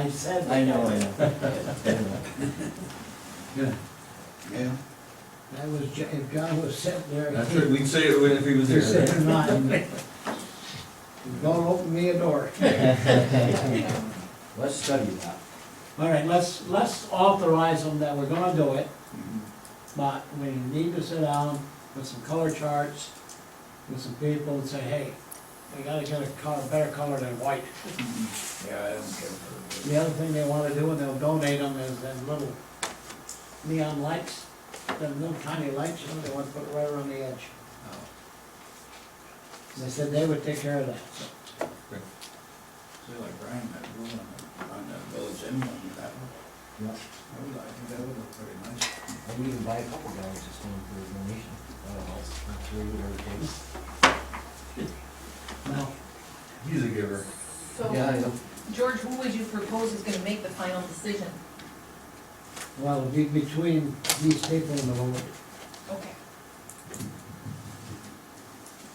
I said. I know, I know. Yeah, Yeah, That was, Jo- if John was sitting there. that's right, we'd say it if he was You're there. sitting mine. Don't open me a door. Let's study that. All right, let's, let's authorize them that we're gonna do it, but we need to sit down with some color charts, with some people and say, hey, we gotta get a color, better color than white. yeah, I don't care for The other thing they wanna do, and they'll donate them, is them little neon lights, them little tiny lights, you know, they wanna put right around the edge. oh, They said they would take care of that, so. See, like Brian, that rule on that, on that village inland, that one. Yeah. I would, I think that would look pretty nice. I would even buy a couple dogs just going for a donation. I don't know, for three, whatever it takes. No, He's a giver. Yeah, I So, know. George, who would you propose is gonna make the final decision? well, it'd be between these people and the board. Okay.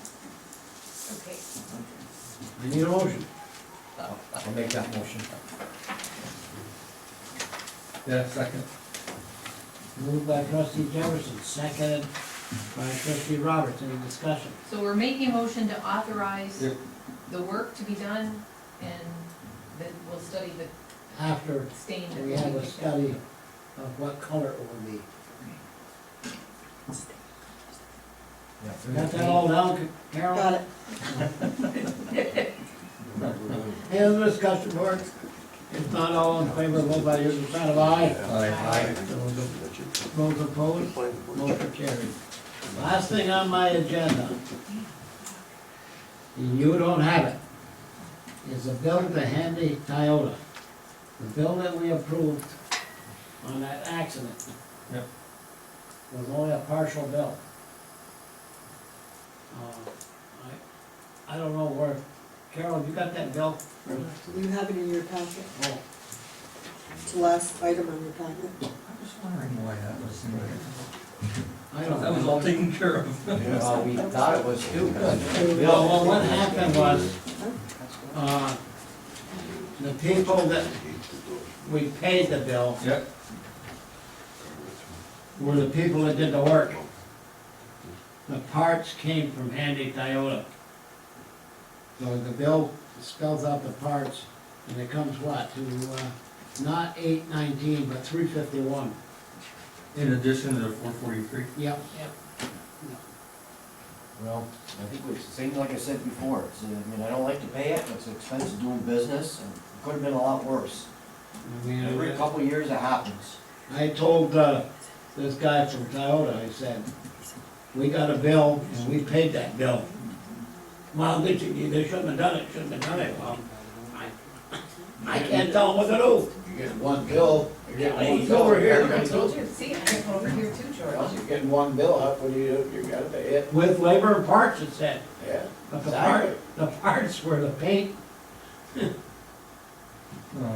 Okay, I need a motion. I'll I'll make that motion. Yeah, second. Moved by trustee Jefferson, seconded by trustee Roberts, any discussion? so we're making a motion to authorize Yep. the work to be done, and then we'll study the After stain. that we have we a picked up. study of what color it will be. Yeah, three. Got that all down, Carol? Got it. Any other discussion, board? If not, all in favor, vote by your sign of aye. Those opposed, motion carried. Last thing on my agenda, and you don't have it, is a bill to Handy Toyota. The bill that we approved on that accident. Yep. Was only a partial bill. Uh, I, I don't know where, Carol, you got that bill? You have it in your packet, Oh, it's the last item on your packet. was wondering why that was. I don't know. That was all taken care of. Well, we thought it was too. Well, well, what happened was, uh, the people that we paid the bill Yep. were the people that did the work. The parts came from Handy Toyota. So the bill spells out the parts, and it comes what, to, uh, not eight nineteen, but three fifty-one. In addition to the four forty-three. Yep, Well, I think it's the same like I said before, it's, uh, I mean, I don't like to pay it, it's expensive doing business, and it could've been a lot worse. I mean, uh, Every couple of years it happens. I told, uh, this guy from Toyota, I said, we got a bill and we paid that bill. Well, they, should- they shouldn't have done it, shouldn't have done it, well, I, I can't tell them what to do. You get one bill, you get Yeah, one he's bill. over here. You're gonna do it. George, See, I have over here too, Well, George. You're getting one bill up, what do you, do? you gotta pay it, With labor and parts, it said, yeah. but the part, the parts were the paint, No,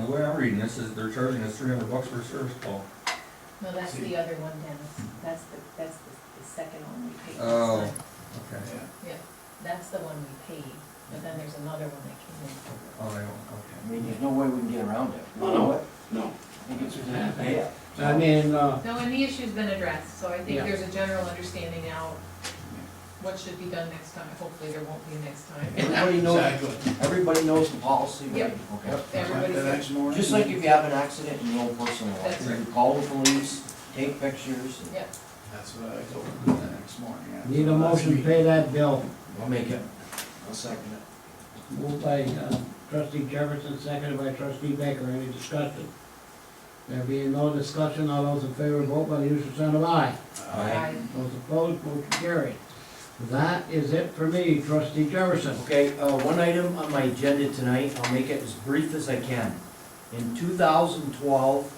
the way I'm reading this is they're charging us three hundred bucks for a service call. No, that's the other one, Dennis, that's the, that's the, the second one we paid. this Oh. time. Okay. Yeah. Yeah, that's the one we paid, but then there's another one that came in. Oh, I don't, I mean, there's no way we can get around it. No, no. no. I think it's, yeah. I mean, uh, No, and the issue's been addressed, so I think Yeah. there's a general understanding now what should be done next time. Hopefully there won't be a next time. Everybody knows, Exactly. everybody knows the policy, right? Yep. Okay. Everybody's The next morning. Just like if you have an accident in your own personal life, That's right. you call the police, take pictures, and Yep, That's what I told him the next morning. yeah. need a motion to pay that bill. we'll make it. I'll second it. Moved by uh, trustee Jefferson, seconded by trustee Baker, any discussion? There being no discussion, all those in favor vote by the usual sign of aye. I, Those opposed, motion carried. That is it for me, trustee Jefferson. Okay, uh, one item on my agenda tonight, I'll make it as brief as I can. In two thousand twelve,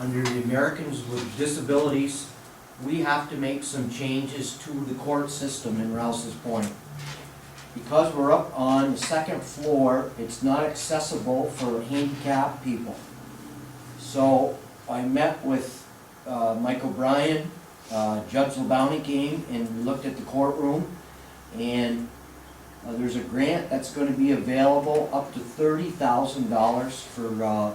under the Americans with Disabilities, we have to make some changes to the court system in Rouse's Point. Because we're up on the second floor, it's not accessible for handicapped people. So I met with, uh, Mike O'Brien, uh, Judge LeBounty came and we looked at the courtroom. And uh, There's a grant that's gonna be available up to thirty thousand dollars for, uh,